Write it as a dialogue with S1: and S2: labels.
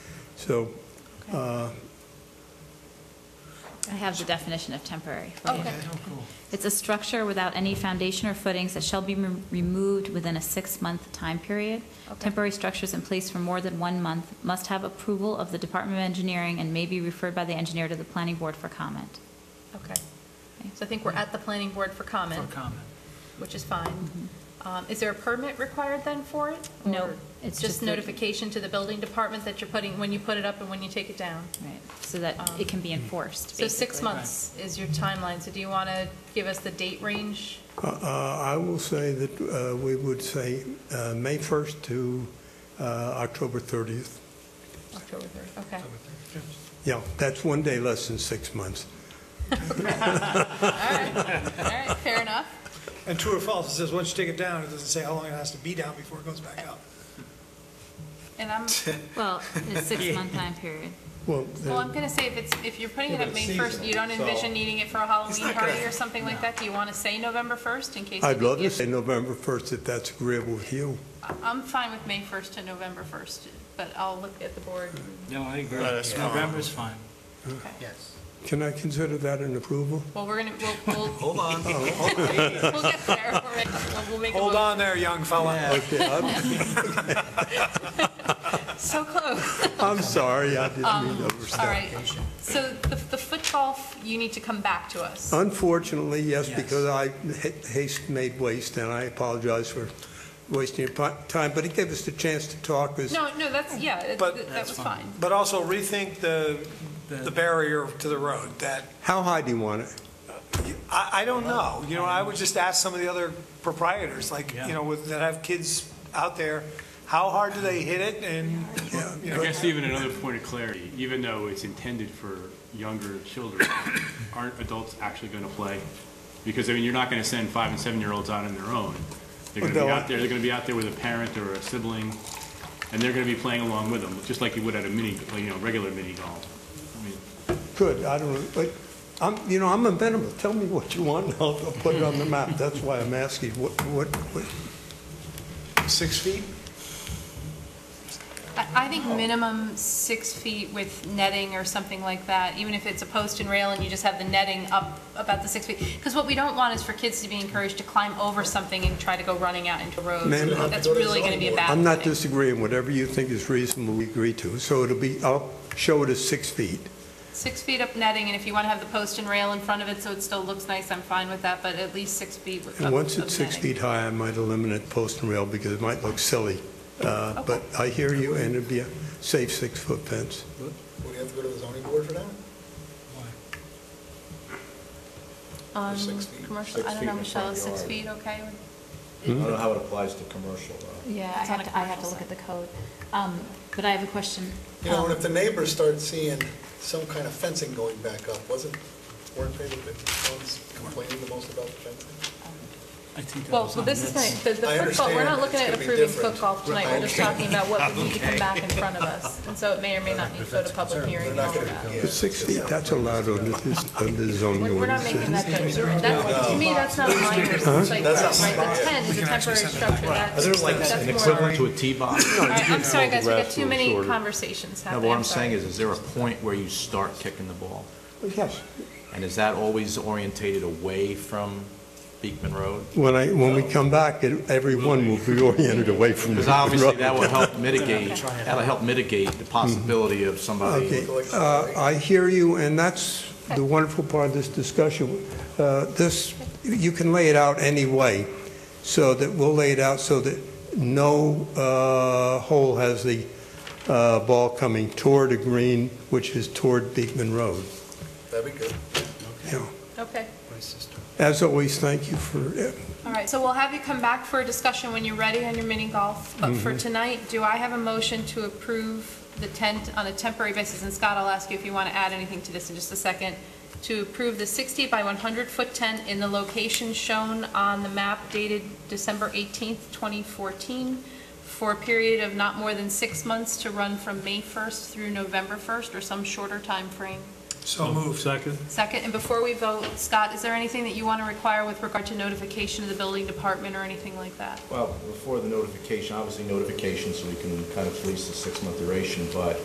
S1: So, uh,
S2: I have the definition of temporary for you.
S3: Okay.
S2: It's a structure without any foundation or footings that shall be re- removed within a six-month time period.
S3: Okay.
S2: Temporary structures in place for more than one month must have approval of the Department of Engineering and may be referred by the engineer to the planning board for comment.
S3: Okay. So I think we're at the planning board for comment,
S4: For comment.
S3: which is fine. Um, Is there a permit required then for it?
S2: No,
S3: Or
S2: it's just
S3: Just
S2: the-
S3: notification to the building department that you're putting, when you put it up and when you take it down?
S2: Right, so that it can be enforced,
S3: So six
S2: basically.
S3: months is your timeline, so do you want to give us the date range?
S1: uh, uh, I will say that uh, we would say uh, May 1st to uh, October 30th.
S3: October 3rd, okay.
S1: Yeah, that's one day less than six months.
S3: All right, fair enough.
S5: And true or false, it says, once you take it down, it doesn't say how long it has to be down before it goes back up.
S3: And I'm,
S2: Well, it's six-month time period.
S1: Well,
S3: well, I'm
S1: then-
S3: going to say if it's, if you're putting it up May 1st, you don't
S5: so-
S3: envision needing it for a Halloween
S5: not gonna-
S3: party or something like that? Do you want to say November 1st in case?
S1: uh, I'd
S3: you
S1: love to
S3: give-
S1: say November 1st if that's agreeable with you.
S3: I- I'm fine with May 1st to November 1st, but I'll look at the board.
S4: No, I agree.
S6: No, that's fine.
S4: November's fine.
S6: Yes.
S1: Can I consider that an approval?
S3: Well, we're going to, we'll, we'll,
S6: Hold on.
S3: we'll get there. We're ready. We'll- We'll make a
S5: Hold
S3: motion.
S5: on there, young fella.
S1: Okay, I'm-
S3: So close.
S1: I'm sorry, I didn't mean to overstep.
S3: All right. So the, the foot golf, you need to come back to us.
S6: Uh,
S1: Unfortunately, yes,
S4: Yes.
S1: because I ha- haste made waste, and I apologize for wasting your pi- time, but it gave us the chance to talk. 'cause-
S3: No, no, that's, yeah, it-
S5: But-
S3: that
S4: That's
S3: was
S4: fine.
S3: fine.
S5: But also rethink the, the barrier to the road, that,
S1: How high do you want it?
S5: I, I don't know, you know, I would just ask some of the other proprietors, like,
S4: Yeah.
S5: you know, with- that have kids out there, how hard do they hit it, and, you
S7: I
S5: know,
S7: guess even another point of clarity, even though it's intended for younger children, aren't adults actually going to play? Because, I mean, you're not going to send five and seven-year-olds out on their own. They're going to
S1: No.
S7: be out there, they're going to be out there with a parent or a sibling, and they're going to be playing along with them, just like you would at a mini, you know, regular mini golf. I mean,
S1: Good, I don't know, but I'm, you know, I'm amenable. Tell me what you want, and I'll I'll put it on the map. That's why I'm asking, what, what, what-
S5: six feet?
S3: I, I think minimum six feet with netting or something like that, even if it's a post and rail and you just have the netting up about the six feet. Because what we don't want is for kids to be encouraged to climb over something and try to go running out into roads.
S1: Ma'am, I-
S3: That's really going to be a bad thing.
S1: I'm not disagreeing, whatever you think is reasonable, we agree to. So it'll be, I'll show it as six feet.
S3: Six feet up netting, and if you want to have the post and rail in front of it so it still looks nice, I'm fine with that, but at least six feet of
S1: And once it's six
S3: of netting.
S1: feet high, I might eliminate post and rail because it might look silly. Uh,
S3: Okay.
S1: But I hear you, and it'd be a safe six-foot fence.
S6: Would we have to go to the zoning board for that?
S3: Um,
S6: six feet.
S3: Commercial, I don't know, Michelle, is six feet okay?
S8: I don't know how it applies to commercial, though.
S9: Yeah, I
S3: It's on
S9: have
S3: a
S9: to, I have to
S3: commercial
S9: look at the code. Um, But I have a question.
S6: You know, and
S9: Um,
S6: if the neighbors start seeing some kind of fencing going back up, wasn't, weren't they the ones complaining the most about the fencing?
S4: I think that
S3: Well,
S4: was
S3: well,
S4: on
S3: this is,
S4: this.
S3: not- the the
S6: I
S3: foot golf, we're not
S6: understand.
S3: looking
S6: It's
S3: at
S6: gonna be
S3: approving
S6: different.
S3: foot golf tonight, we're just
S6: Okay.
S3: talking about what would need to come back in front of us. And so it may or may not need to go to public hearing and all of that.
S1: But six feet, that's allowed under this, under the zoning
S3: We're
S1: ordinance.
S3: we're not making that judgment. That's- To me, that's not minor, it's like, right, the 10 is a temporary structure, that's, that's more. All
S8: to a tee box?
S3: right, I'm sorry, guys, we got
S8: Grass
S3: too
S8: was
S3: many
S8: shorter.
S3: conversations
S8: No,
S3: happening.
S8: but what I'm
S3: sorry.
S8: saying is, is there a point where you start kicking the ball?
S1: Yes.
S8: And is that always orientated away from Beekman Road?
S1: When I, when we come back, it- everyone will be oriented away from the
S8: Because obviously, that will help mitigate, that'll help mitigate the possibility of somebody
S1: Okay, uh, I hear you, and that's the wonderful part of this discussion. Uh, This, you can lay it out any way, so that, we'll lay it out so that no uh, hole has the uh, ball coming toward a green, which is toward Beekman Road.
S6: That'd be good.
S1: You know,
S3: Okay,
S1: As always, thank you for, uh,
S3: all right, so we'll have you come back for a discussion when you're ready on your mini golf. But for tonight, do I have a motion to approve the tent on a temporary basis? And Scott, I'll ask you if you want to add anything to this in just a second. To approve the 60 by 100 foot tent in the location shown on the map dated December 18th, 2014, for a period of not more than six months to run from May 1st through November 1st, or some shorter time frame.
S5: So moved.
S7: Second?
S3: Second, and before we vote, Scott, is there anything that you want to require with regard to notification of the building department or anything like that?
S8: Well, before the notification, obviously notification, so we can kind of police the six-month duration, but